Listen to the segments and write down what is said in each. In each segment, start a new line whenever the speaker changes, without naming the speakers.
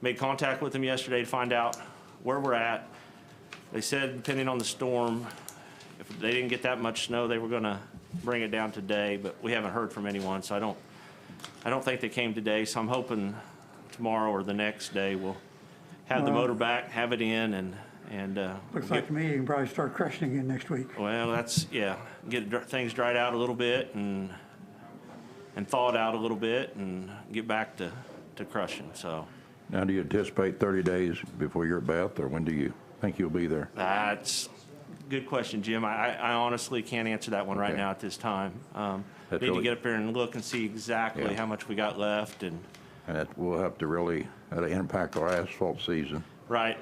Made contact with them yesterday to find out where we're at. They said depending on the storm, if they didn't get that much snow, they were gonna bring it down today, but we haven't heard from anyone, so I don't, I don't think they came today, so I'm hoping tomorrow or the next day we'll have the motor back, have it in and, and, uh.
Looks
get-
like to me you can probably start crushing again next week.
Well, that's, yeah, get dr- things dried out a little bit and, and thawed out a little bit and get back to, to crushing, so.
Now, do you anticipate 30 days before you're at Bath, or when do you think you'll be there?
That's, good question, Jim. I, I I honestly can't answer that one right
Okay.
now at this time. Um,
That's
Need to
really-
get up there and look and see exactly
Yeah.
how much we got left and,
And that will have to really, that'll impact our asphalt season,
right,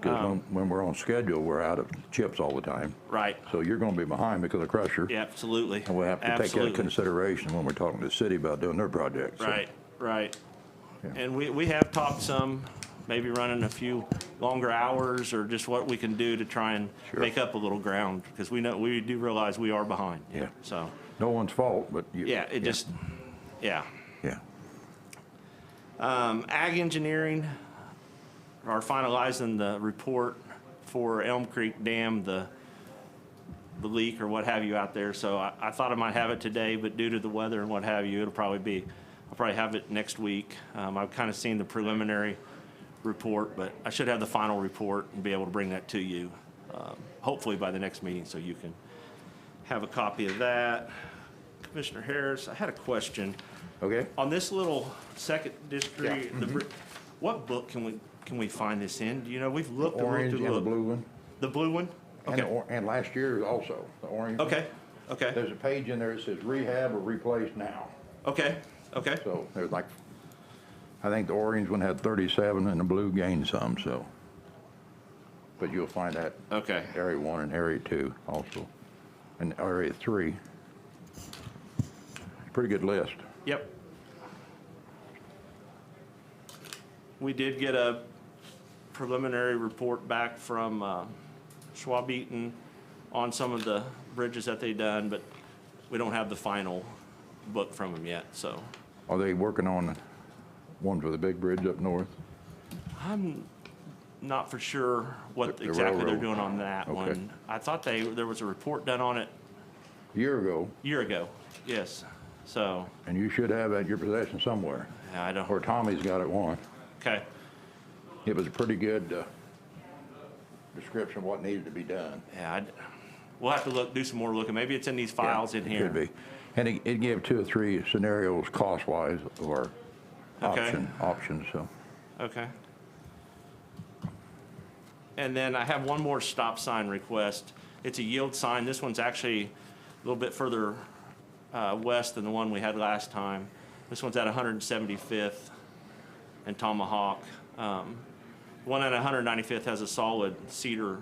because
Um.
when we're on schedule, we're out of chips all the time.
right.
So you're gonna be behind because of crusher.
Yeah, absolutely.
And we'll have to take that into
Absolutely.
consideration when we're talking to the city about doing their projects. So
Right, right.
Yeah.
And we, we have talked some, maybe running a few longer hours or just what we can do to try and
Sure.
make up a little ground, because we know, we do realize we are behind.
Yeah.
So,
No one's fault, but you.
yeah, it just, yeah.
Yeah,
Um, Ag Engineering are finalizing the report for Elm Creek Dam, the, the leak or what have you out there. So I, I thought I might have it today, but due to the weather and what have you, it'll probably be, I'll probably have it next week. Um, I've kind of seen the preliminary report, but I should have the final report and be able to bring that to you, um, hopefully by the next meeting, so you can have a copy of that. Commissioner Harris, I had a question.
okay.
On this little second
Yeah. mm-hmm.
district, the, br- what book can we, can we find this in? Do you know, we've looked and looked
Orange
and
and the
looked.
blue one,
The blue one?
and, the
Okay,
or- and last year also, the orange. one.
okay, okay,
There's a page in there that says rehab or replace now.
okay, okay,
So there's like, I think the orange one had 37 and the blue gained some, so. But you'll find that
okay.
area one and area two also, and area three. Pretty good list.
Yep. We did get a preliminary report back from uh, Schwab Eaton on some of the bridges that they done, but we don't have the final book from them yet, so.
Are they working on ones with a big bridge up north?
Not for sure
The-
what
the
exactly they're
railroad.
doing on that
Okay.
one. I thought they, there was a report done on it
A Year ago,
a year ago, yes. So,
and you should have at your possession somewhere,
I don't,
or Tommy's got it one.
okay,
It was a pretty good uh, description of what needed to be done.
yeah, I'd- we'll have to look, do some more looking. Maybe it's in these files in
It
here.
Could be. And it, it gave two or three scenarios cost-wise or
Okay.
option, options, so.
Okay. And then I have one more stop sign request. It's a yield sign. This one's actually a little bit further uh, west than the one we had last time. This one's at 175th and Tomahawk. Um, One at 195th has a solid cedar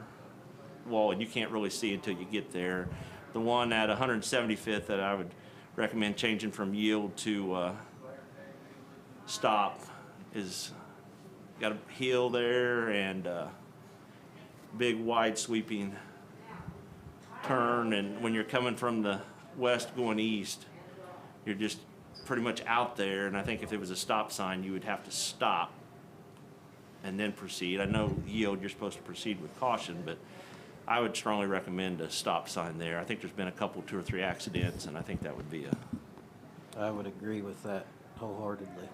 wall, and you can't really see until you get there. The one at 175th that I would recommend changing from yield to uh, stop is got a hill there and a big wide sweeping turn and when you're coming from the west going east you're just pretty much out there and i think if there was a stop sign you would have to stop and then proceed i know yield you're supposed to proceed with caution but i would strongly recommend a stop sign there i think there's been a couple two or three accidents and i think that would be a
I would agree with that wholeheartedly.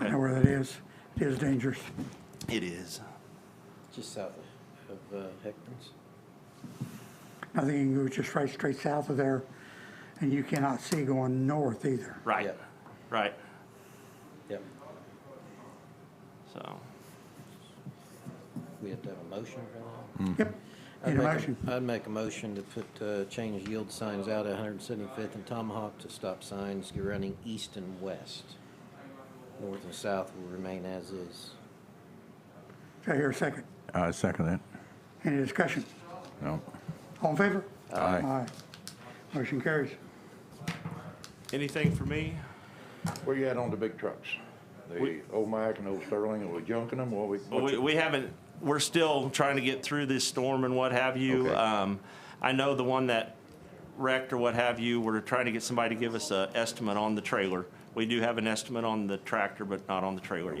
I know where that is. It is dangerous.
it is
Just south of uh, Hector's.
I think you can go just right straight south of there, and you cannot see going north either.
right
Yep.
right
Yep.
so
We have to have a motion for
Yep.
that?
Need a
I'd make
motion?
I'd make a motion to put, uh, change yield signs out at 175th and Tomahawk to stop signs running east and west. North and south will remain as is.
Do I hear a second?
I second that.
Any discussion?
No.
All in favor?
Aye.
Motion carries.
anything for me
Where you at on the big trucks? The Omac and old Sterling, are we junking them? What we?
Well,
what's
We,
it-
we haven't, we're still trying to get through this storm and what have you.
Okay.
Um, I know the one that wrecked or what have you, we're trying to get somebody to give us a estimate on the trailer. We do have an estimate on the tractor, but not on the trailer yet.